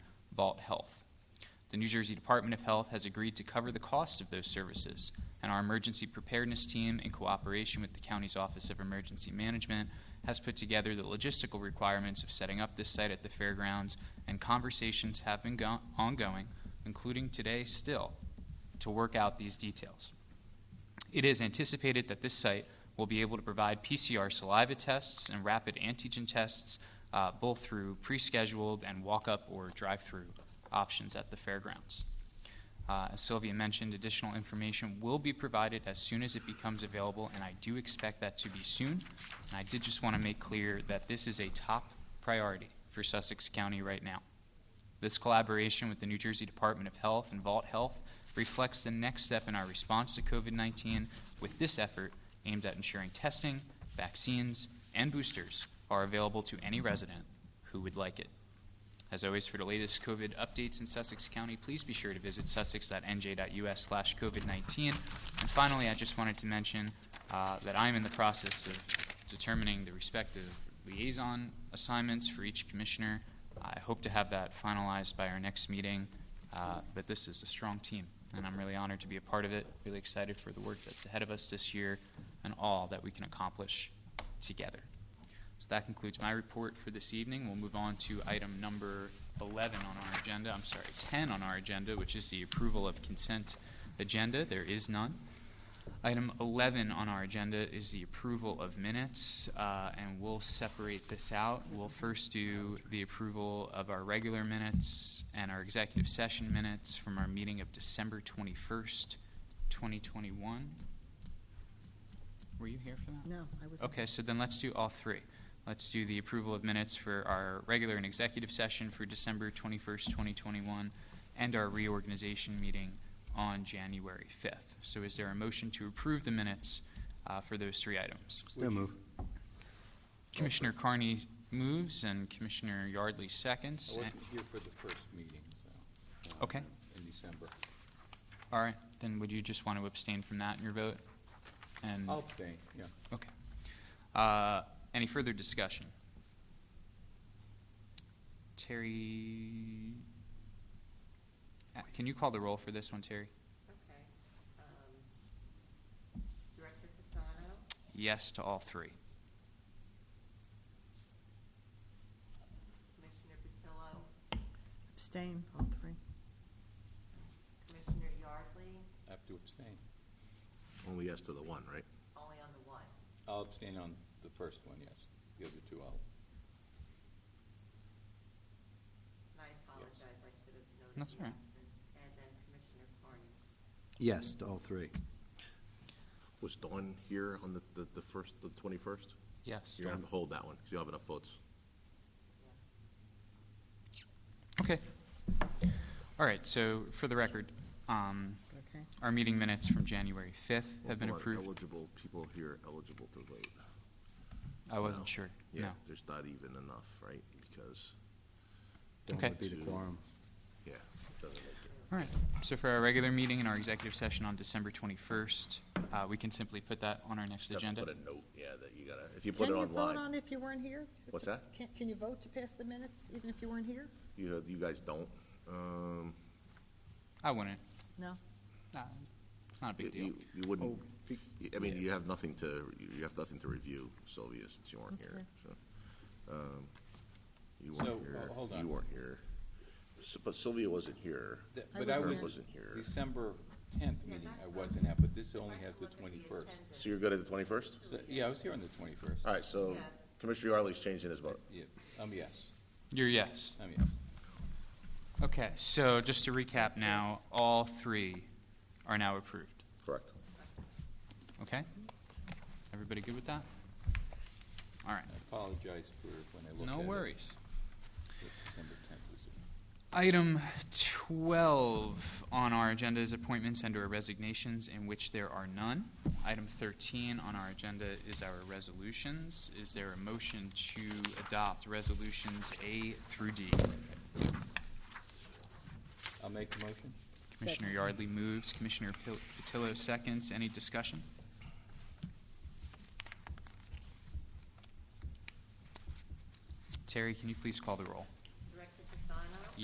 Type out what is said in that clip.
Vault Health. The New Jersey Department of Health has agreed to cover the cost of those services, and our emergency preparedness team, in cooperation with the county's Office of Emergency Management, has put together the logistical requirements of setting up this site at the fairgrounds, and conversations have been go- ongoing, including today still, to work out these details. It is anticipated that this site will be able to provide PCR saliva tests and rapid antigen tests, uh, both through pre scheduled and walk up or drive through options at the fairgrounds. Uh, as Sylvia mentioned, additional information will be provided as soon as it becomes available, and I do expect that to be soon. And I did just want to make clear that this is a top priority for Sussex County right now. This collaboration with the New Jersey Department of Health and Vault Health reflects the next step in our response to COVID 19 with this effort aimed at ensuring testing, vaccines, and boosters are available to any resident who would like it. As always, for the latest COVID updates in Sussex County, please be sure to visit sussex.nj.us slash COVID-19. And finally, I just wanted to mention uh, that I'm in the process of determining the respective liaison assignments for each commissioner. I hope to have that finalized by our next meeting, uh, but this is a strong team, and I'm really honored to be a part of it, really excited for the work that's ahead of us this year and all that we can accomplish together. So that concludes my report for this evening. We'll move on to item number 11 on our agenda, I'm sorry, 10 on our agenda, which is the approval of consent agenda. There is none. Item 11 on our agenda is the approval of minutes, uh, and we'll separate this out. We'll first do the approval of our regular minutes and our executive session minutes from our meeting of December 21st, 2021. Were you here for that? No, I was. Okay, so then let's do all three. Let's do the approval of minutes for our regular and executive session for December 21st, 2021, and our reorganization meeting on January 5th. So is there a motion to approve the minutes uh, for those three items? Still move. Commissioner Carney moves and Commissioner Yardley seconds. I wasn't here for the first meeting, so. uh, Okay. In December. All right, then would you just want to abstain from that in your vote? And, I'll abstain, yeah. okay. Uh, Any further discussion? Terry, uh, can you call the roll for this one, Terry? Okay. um, Director Fasano, Yes to all three. Commissioner Patillo, Abstain, all three. Commissioner Yardley, I have to abstain. Only yes to the one, right? only on the one. I'll abstain on the first one, yes. The other two, I'll, And I apologize, I should have noted. That's the all right. absence. And then Commissioner Carney. Yes to all three. Was Dawn here on the, the, the first, the twenty-first? Yes. You're gonna have to hold that one, because you don't have enough votes. Okay. All right, so for the record, um, Okay. our meeting minutes from January 5th have been Hold on, approved. Eligible, people here eligible to vote. I No. wasn't sure, Yeah, no. There's not even enough, right? Because, Dawn Okay. would be the quorum. yeah, it doesn't make it. All right, so for our regular meeting and our executive session on December 21st, uh, we can simply put that on our next Just have to agenda? Put a note, yeah, that you gotta, if you put it Can you vote online, on if you weren't here? What's that? Can, can you vote to pass the minutes even if you weren't here? you, you guys don't, um. I wouldn't. No? Nah, It's not a big you- deal. You you wouldn't, Oh, I mean, you have nothing to, you have nothing to review, Sylvia, since you weren't here, so. um, So, You weren't here, ho- hold you on. weren't here. S- But Sylvia wasn't here. th- I but I wasn't was. here. Wasn't here. December tenth Yeah, meeting, that's I not- wasn't at, but this only I has the looked at twenty-first. attendance. So you're good at the twenty-first? Yeah, I was here on the twenty-first. All right, so Yeah. Commissioner Yardley's changing his vote. Yeah, um, yes, You're yes. um, yes. Okay, so just to recap now, all three are now approved, Correct. okay? Everybody good with that? All right, I apologize for when I looked at no it, worries. that December tenth was it. Item 12 on our agenda is appointments and/or resignations in which there are none. Item 13 on our agenda is our resolutions. Is there a motion to adopt resolutions A through D? I'll make the motion. Commissioner Second. Yardley moves, Commissioner Pil- Patillo seconds. Any discussion? Terry, can you please call the roll?